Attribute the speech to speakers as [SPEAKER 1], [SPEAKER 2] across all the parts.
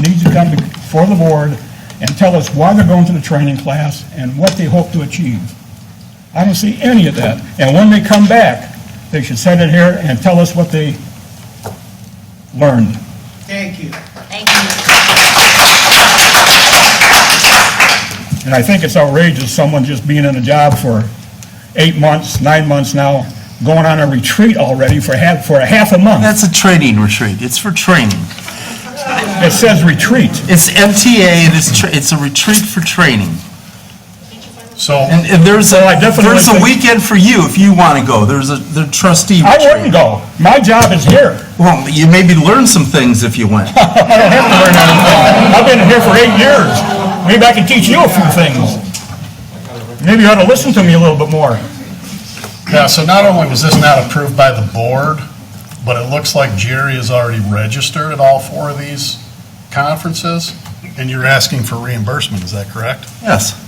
[SPEAKER 1] needs to come before the board and tell us why they're going to the training class and what they hope to achieve. I don't see any of that. And when they come back, they should send it here and tell us what they learned.
[SPEAKER 2] Thank you.
[SPEAKER 3] Thank you.
[SPEAKER 1] And I think it's outrageous, someone just being in a job for eight months, nine months now, going on a retreat already for half, for a half a month.
[SPEAKER 4] That's a training retreat. It's for training.
[SPEAKER 1] It says retreat.
[SPEAKER 4] It's MTA and it's, tra- it's a retreat for training.
[SPEAKER 5] So,
[SPEAKER 4] And, and there's a,
[SPEAKER 1] I definitely
[SPEAKER 4] there's a
[SPEAKER 1] think-
[SPEAKER 4] weekend for you if you want to go. There's a, the trustee
[SPEAKER 1] I
[SPEAKER 4] retreat.
[SPEAKER 1] wouldn't go. My job is here.
[SPEAKER 4] Well, you maybe learn some things if you went.
[SPEAKER 1] I don't have to learn anything. I've been here for eight years. Maybe I can teach you a few things. Maybe you ought to listen to me a little bit more.
[SPEAKER 5] yeah, so not only was this not approved by the board, but it looks like Jerry is already registered at all four of these conferences, and you're asking for reimbursement, is that correct?
[SPEAKER 4] Yes.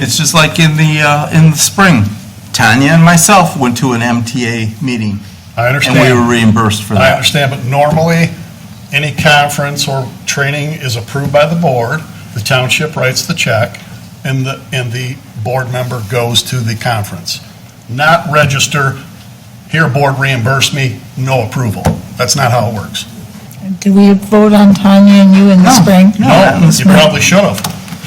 [SPEAKER 4] It's just like in the, uh, in the spring. Tanya and myself went to an MTA meeting
[SPEAKER 5] I
[SPEAKER 4] and we were
[SPEAKER 5] understand,
[SPEAKER 4] reimbursed for
[SPEAKER 5] I
[SPEAKER 4] that.
[SPEAKER 5] understand, but normally, any conference or training is approved by the board, the township writes the check, and the, and the board member goes to the conference. Not register, here, board reimburse me, no approval. That's not how it works.
[SPEAKER 6] Did we vote on Tanya and you in the
[SPEAKER 4] No,
[SPEAKER 6] spring?
[SPEAKER 4] no.
[SPEAKER 5] No, you probably should have.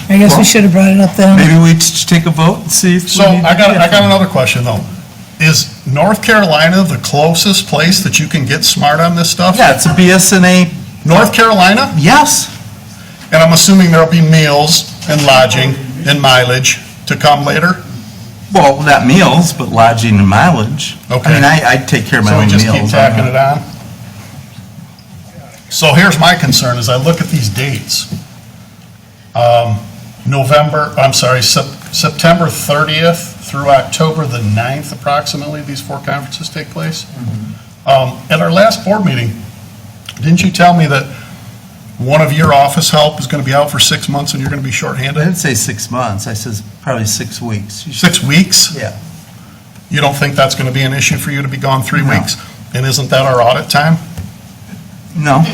[SPEAKER 6] I guess we should have brought it up then.
[SPEAKER 4] Maybe we t- take a vote and see if we
[SPEAKER 5] So
[SPEAKER 4] need to
[SPEAKER 5] I got,
[SPEAKER 4] do
[SPEAKER 5] I got
[SPEAKER 4] it.
[SPEAKER 5] another question though. Is North Carolina the closest place that you can get smart on this stuff?
[SPEAKER 4] Yeah, it's a BSNA,
[SPEAKER 5] North Carolina?
[SPEAKER 4] yes.
[SPEAKER 5] And I'm assuming there'll be meals and lodging and mileage to come later?
[SPEAKER 4] Well, not meals, but lodging and mileage. I
[SPEAKER 5] Okay.
[SPEAKER 4] mean, I, I take care of my
[SPEAKER 5] So
[SPEAKER 4] own
[SPEAKER 5] we
[SPEAKER 4] meals.
[SPEAKER 5] just keep
[SPEAKER 4] I'm
[SPEAKER 5] tacking
[SPEAKER 4] not-
[SPEAKER 5] it on? So here's my concern, as I look at these dates. Um, November, I'm sorry, Sep- September 30th through October the 9th approximately, these four conferences take place.
[SPEAKER 4] Mm-hmm.
[SPEAKER 5] Um, At our last board meeting, didn't you tell me that one of your office help is going to be out for six months and you're going to be
[SPEAKER 4] I
[SPEAKER 5] shorthanded?
[SPEAKER 4] didn't say six months, I says probably six weeks. You should-
[SPEAKER 5] Six weeks?
[SPEAKER 4] Yeah.
[SPEAKER 5] You don't think that's going to be an issue for you to be gone three
[SPEAKER 4] No.
[SPEAKER 5] weeks? And isn't that our audit time?
[SPEAKER 4] No,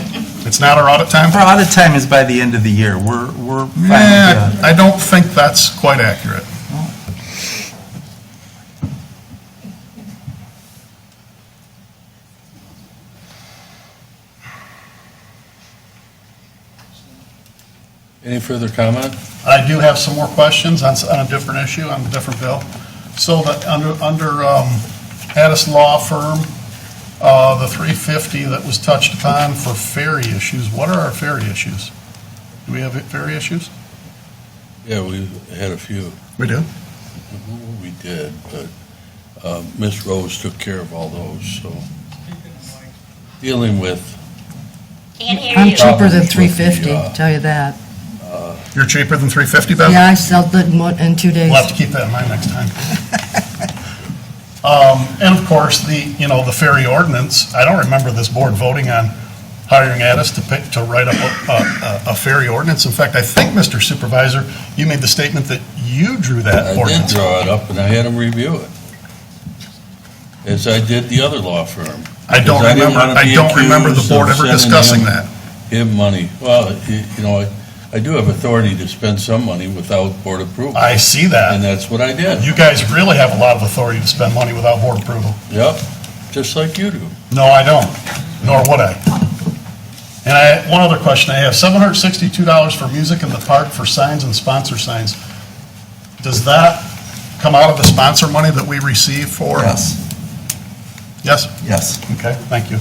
[SPEAKER 5] It's not our audit time?
[SPEAKER 4] our audit time is by the end of the year. We're, we're. fine with that.
[SPEAKER 5] Yeah, I don't think that's quite accurate.
[SPEAKER 7] Any further comment?
[SPEAKER 5] I do have some more questions on, s- on a different issue, on a different bill. So the, under, under um, Addis Law Firm, uh, the 350 that was touched upon for ferry issues, what are our ferry issues? Do we have ferry issues?
[SPEAKER 7] Yeah, we had a few.
[SPEAKER 5] We do.
[SPEAKER 7] We did, but uh, Ms. Rose took care of all those, so dealing with,
[SPEAKER 3] Can't hear
[SPEAKER 8] I'm
[SPEAKER 3] you.
[SPEAKER 8] cheaper than
[SPEAKER 7] Problems with the,
[SPEAKER 8] 350,
[SPEAKER 7] uh,
[SPEAKER 8] tell you that.
[SPEAKER 5] You're cheaper than 350, Bev?
[SPEAKER 8] Yeah, I sold it in one- in two days.
[SPEAKER 5] We'll have to keep that in mind next time. Um, And of course, the, you know, the ferry ordinance, I don't remember this board voting on hiring Addis to pick, to write up a- a, a ferry ordinance. In fact, I think, Mr. Supervisor, you made the statement that you drew
[SPEAKER 7] I
[SPEAKER 5] that
[SPEAKER 7] did
[SPEAKER 5] ordinance.
[SPEAKER 7] draw it up and I had him review it. As I did the other law firm.
[SPEAKER 5] I don't
[SPEAKER 7] because I didn't
[SPEAKER 5] remember,
[SPEAKER 7] wanna
[SPEAKER 5] I
[SPEAKER 7] be
[SPEAKER 5] don't remember the
[SPEAKER 7] accused
[SPEAKER 5] board
[SPEAKER 7] of
[SPEAKER 5] ever
[SPEAKER 7] sending
[SPEAKER 5] discussing
[SPEAKER 7] him-
[SPEAKER 5] that.
[SPEAKER 7] Give money. Well, y- you know, I- I do have authority to spend some money without board approval.
[SPEAKER 5] I see
[SPEAKER 7] And
[SPEAKER 5] that.
[SPEAKER 7] that's what I did.
[SPEAKER 5] You guys really have a lot of authority to spend money without board approval.
[SPEAKER 7] Yep, just like you do.
[SPEAKER 5] No, I don't, nor would I. And I, one other question I have, seven hundred sixty-two dollars for music in the park for signs and sponsor signs. Does that come out of the sponsor money that we receive for?
[SPEAKER 4] Yes,
[SPEAKER 5] Yes?
[SPEAKER 4] yes.
[SPEAKER 5] Okay, thank you.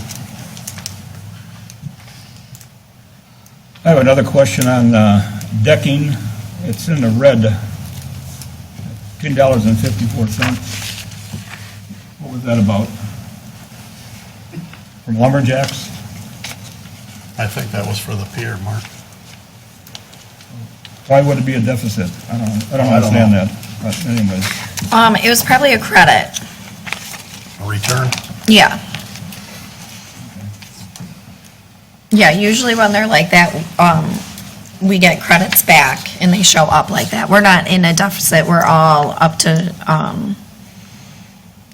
[SPEAKER 1] I have another question on uh, decking. It's in the red, $10.54. What was that about? From lumberjacks?
[SPEAKER 5] I think that was for the pier, Mark.
[SPEAKER 1] Why would it be a deficit? I don't, I don't
[SPEAKER 5] I don't know.
[SPEAKER 1] understand that, but anyways.
[SPEAKER 3] Um, it was probably a credit.
[SPEAKER 5] A Return?
[SPEAKER 3] Yeah. Yeah, usually when they're like that, um, we get credits back and they show up like that. We're not in a deficit, we're all up to, um,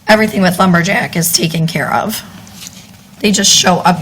[SPEAKER 3] everything with lumberjack is taken care of. They just show up